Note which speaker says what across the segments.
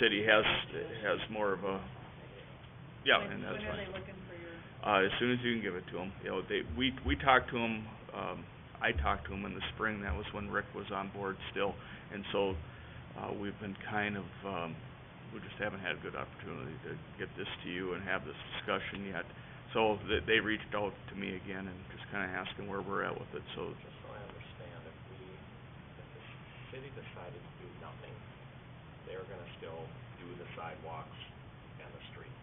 Speaker 1: city has, has more of a, yeah,
Speaker 2: When-
Speaker 1: and that's
Speaker 2: When are
Speaker 1: fine.
Speaker 2: they looking for your,
Speaker 1: Uh, as soon as you can give it to them, you know, they, we, we talked to them, um, I talked to them in the spring, that was when Rick was on board still. And so, uh, we've been kind of, um, we just haven't had a good opportunity to get this to you and have this discussion yet. So they, they reached out to me again and just kinda asking where we're at with it, so
Speaker 3: Just so I understand, if we, if the city decided to do nothing, they're gonna still do the sidewalks and the street.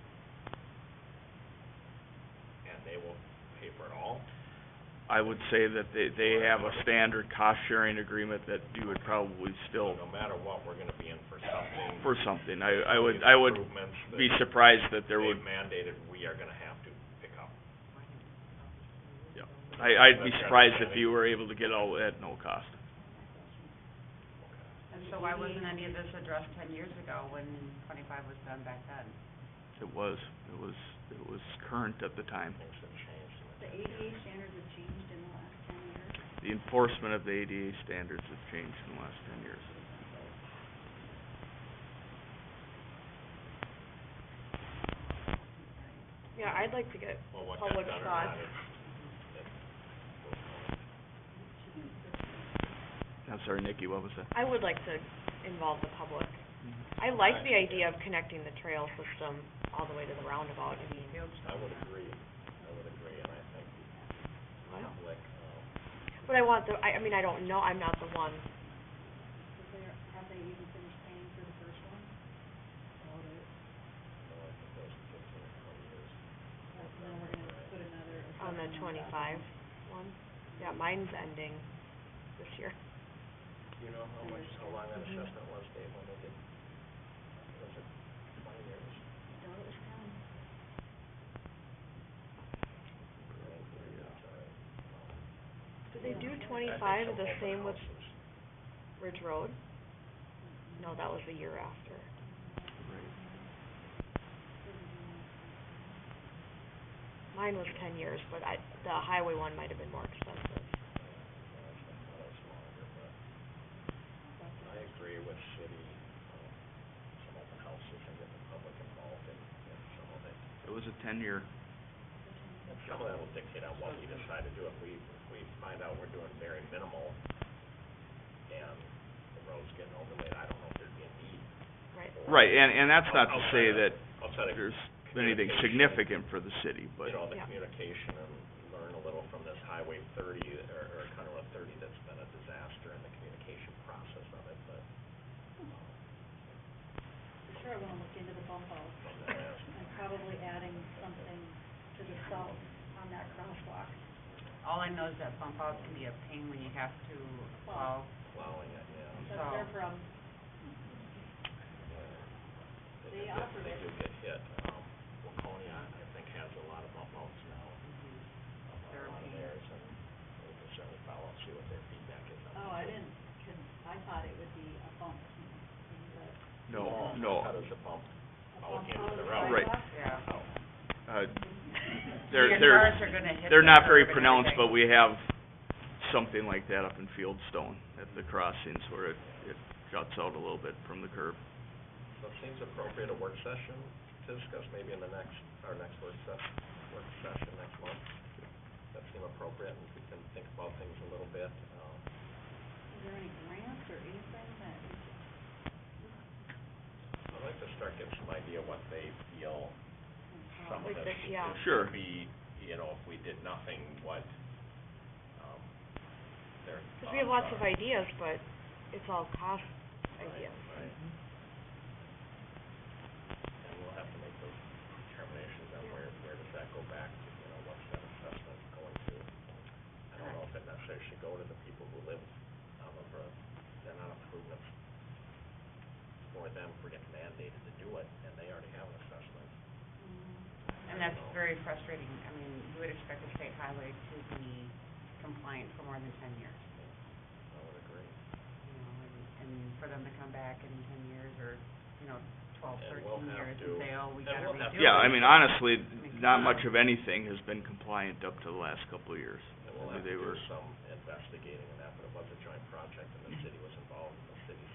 Speaker 3: And they will pay for it all?
Speaker 1: I would say that they, they have a standard cost sharing agreement that you would probably
Speaker 3: So
Speaker 1: still,
Speaker 3: No matter what, we're gonna be in for something.
Speaker 1: for something, I, I would,
Speaker 3: these
Speaker 1: I would
Speaker 3: Improvements
Speaker 1: be
Speaker 3: that
Speaker 1: surprised that there would,
Speaker 3: they've mandated we are gonna have to pick up.
Speaker 1: I, I'd be
Speaker 3: That's
Speaker 1: surprised if
Speaker 3: understanding.
Speaker 1: you were able to get all at no cost.
Speaker 4: And so why wasn't any of this addressed ten years ago when twenty-five was done back then?
Speaker 1: It was, it was, it was current at the time.
Speaker 3: Things have changed.
Speaker 2: the ADA standards have changed in the last ten years.
Speaker 1: The enforcement of the ADA standards have changed in the last ten years.
Speaker 5: Yeah, I'd like to get
Speaker 3: Well, what
Speaker 5: public
Speaker 3: that's done or
Speaker 5: thought.
Speaker 3: not is,
Speaker 1: I'm sorry, Nikki, what was that?
Speaker 5: I would like to involve the public.
Speaker 3: Mm-hmm.
Speaker 5: I like the idea of connecting the trail system all the way to the roundabout, I mean,
Speaker 3: I would agree, I would agree, and I think the public, um,
Speaker 5: but I want the, I, I mean, I don't know, I'm not the one.
Speaker 2: Have they, have they even finished paying for the first one? About it.
Speaker 3: no, I think those fifteen or twenty years.
Speaker 2: But now we're gonna put another.
Speaker 5: on the
Speaker 2: assessment
Speaker 5: twenty-five one. Yeah, mine's ending this year.
Speaker 3: Do you know how much, how long that
Speaker 5: Mm-hmm.
Speaker 3: assessment was, Dave, when they did, was it twenty years?
Speaker 2: I doubt it was ten.
Speaker 5: Did they do
Speaker 3: I think
Speaker 5: twenty-five
Speaker 3: some
Speaker 5: the
Speaker 3: open
Speaker 5: same with
Speaker 3: houses.
Speaker 5: Ridge Road? No, Oh, that was the year after. Mine was ten years, but I, the highway one might have been more expensive.
Speaker 3: Well, it's longer, but I agree with city, um, some open houses and get the public involved in, in some of it.
Speaker 1: It was a ten-year,
Speaker 3: And some of that will dictate on what we decide to do. If we, if we find out we're doing very minimal and the road's getting overlaid, I don't know if there'd be a need.
Speaker 5: Right.
Speaker 3: for-
Speaker 1: right, and, and that's not to say
Speaker 3: Outside
Speaker 1: that
Speaker 3: of- Outside of,
Speaker 1: there's anything significant
Speaker 3: communication.
Speaker 1: for the city, but,
Speaker 3: you know, the
Speaker 5: Yeah.
Speaker 3: communication and learn a little from this Highway thirty or, or County Road thirty that's been a disaster in the communication process of it, but.
Speaker 2: For sure, I wanna look into the bump outs and probably adding something to the south on that crosswalk.
Speaker 4: All I know is that bump outs can be a pain when you have to, well,
Speaker 3: Plowing it, yeah.
Speaker 2: That's their
Speaker 4: So-
Speaker 2: problem.
Speaker 3: do
Speaker 2: They
Speaker 3: get-
Speaker 2: offered
Speaker 3: They
Speaker 2: it.
Speaker 3: do get hit. Um, Waconia, I think, has a lot of bump outs now. um, on
Speaker 4: They're
Speaker 3: a lot of
Speaker 4: being-
Speaker 3: theirs, and we can certainly follow up, see what their feedback is on that.
Speaker 2: Oh, I didn't, con- I thought it would be a bump, but
Speaker 1: no,
Speaker 3: Oh,
Speaker 1: no.
Speaker 3: How does a bump,
Speaker 2: a
Speaker 3: Oh,
Speaker 2: bump
Speaker 3: into
Speaker 2: on
Speaker 3: the
Speaker 2: the
Speaker 3: road.
Speaker 1: Right.
Speaker 2: sidewalk.
Speaker 4: yeah.
Speaker 3: oh,
Speaker 1: Uh,
Speaker 4: Your
Speaker 1: they're, they're,
Speaker 4: cars are gonna hit
Speaker 1: They're
Speaker 4: the
Speaker 1: not very
Speaker 4: curb and
Speaker 1: pronounced, but we
Speaker 4: everything.
Speaker 1: have something like that up in Fieldstone at the crossings where it, it juts out a little bit from the curb.
Speaker 3: so it seems appropriate a work session to discuss, maybe in the next, our next work session, work session next month. That seem appropriate, and we can think about things a little bit, um,
Speaker 2: Is there any grants or anything that,
Speaker 3: I'd like to start getting some idea what they feel some of
Speaker 5: Like
Speaker 3: this
Speaker 5: this, yeah.
Speaker 3: this
Speaker 1: Sure.
Speaker 3: could be, you know, if we did nothing, what, um, their
Speaker 5: Cause we have
Speaker 3: thoughts
Speaker 5: lots of
Speaker 3: are.
Speaker 5: ideas, but it's all cost ideas.
Speaker 3: Right. And we'll have to make those determinations on where, where does that go back to, you know, what's that assessment going to? I don't know if it necessarily should go to the people who live on the road, they're not improvements for them, if we're getting mandated to do it, and they already have an assessment.
Speaker 2: Mm-hmm.
Speaker 4: And that's very frustrating. I mean, you would expect a state highway to be compliant for more than ten years,
Speaker 3: I would agree.
Speaker 4: you know, and, and for them to come back in ten years or, you know, twelve,
Speaker 3: And we'll
Speaker 4: thirteen
Speaker 3: have
Speaker 4: years
Speaker 3: to-
Speaker 4: and say, oh, we
Speaker 3: and
Speaker 4: gotta
Speaker 3: we'll have
Speaker 4: redo
Speaker 3: to-
Speaker 4: it.
Speaker 1: Yeah, I mean, honestly,
Speaker 4: mean,
Speaker 1: not
Speaker 4: come
Speaker 1: much of
Speaker 4: on.
Speaker 1: anything has been compliant up to the last couple of years.
Speaker 3: And we'll
Speaker 1: I mean,
Speaker 3: have to
Speaker 1: they
Speaker 3: do
Speaker 1: were- Mm-hmm.
Speaker 3: some investigating in that, but it was a joint project and the city was involved and the city's